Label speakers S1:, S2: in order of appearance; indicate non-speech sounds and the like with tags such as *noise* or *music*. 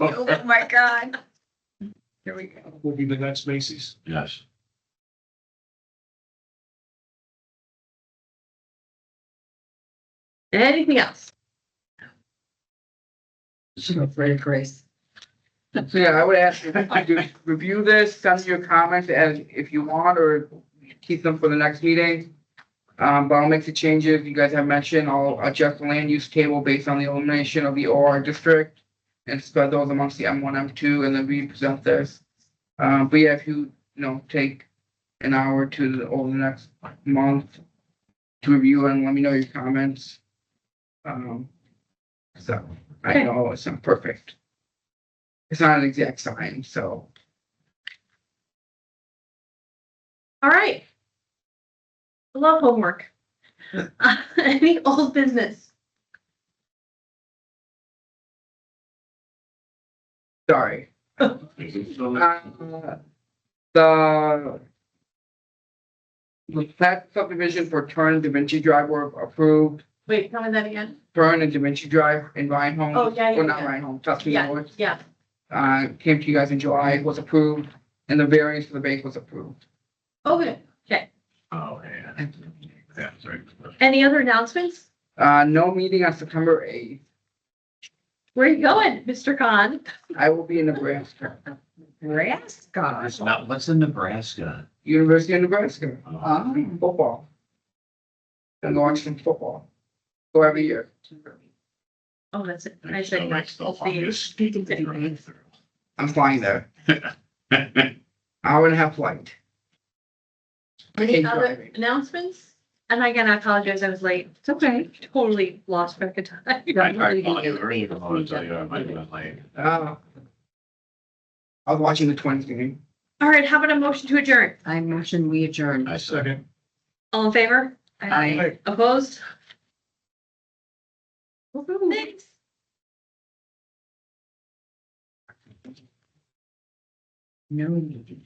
S1: Oh, *laughs* my God. Here we go.
S2: will be the next Macy's.
S3: Yes.
S1: Anything else? She's afraid of Grace.
S4: So yeah, I would ask you to review this, send your comments as if you want, or keep them for the next meeting. Um, but I'll make the changes you guys have mentioned. I'll adjust the land use table based on the elimination of the OR district. And spread those amongst the M one, M two, and then represent this. Um, but yeah, if you, you know, take an hour to the, over the next month. To review and let me know your comments. Um, so I
S1: Okay.
S4: know it's not perfect. It's not an exact science, so.
S1: All right. I Love *laughs* homework. Uh, Any old business?
S4: Sorry. Mm-hmm. Uh, The. The plat subdivision for Turn and Da Vinci Drive were approved,
S1: Wait, tell me that again.
S4: Turn and Da Vinci Drive in Ryan Home.
S1: Oh, yeah, yeah,
S4: Well, not
S1: yeah.
S4: Ryan Home, Tuscany
S1: Yeah,
S4: Woods,
S1: yeah.
S4: uh, came to you guys in July, was approved, and the variance for the bank was approved.
S1: Okay.
S3: Oh, yeah. Yeah, sorry.
S1: Any other announcements?
S4: Uh, no meeting on September eighth,
S1: Where are you going, Mr. Khan?
S4: I will be in Nebraska,
S1: Nebraska.
S3: It's not, what's in Nebraska?
S4: University of Nebraska,
S1: Um,
S4: Ah,
S3: Oh.
S4: football. And Lawrence football, go every year.
S1: Oh, that's it. I
S3: There's
S1: said
S3: so much
S1: that's
S3: stuff on
S1: the-
S3: this.
S4: I'm flying there. Hour and a half flight. I hate
S1: Any other
S4: driving.
S1: announcements? And again, I apologize, I was late. It's okay. Totally lost track of time. *laughs*
S3: I tried calling you earlier, I want to tell you, I might have been late.
S4: Uh, I was watching the twins game.
S1: All right, how about a motion to adjourn?
S5: I motion we
S1: Um,
S5: adjourn.
S3: I said,
S1: All in favor?
S5: Aye.
S2: Hey,
S1: Opposed? Thanks.
S5: No meeting.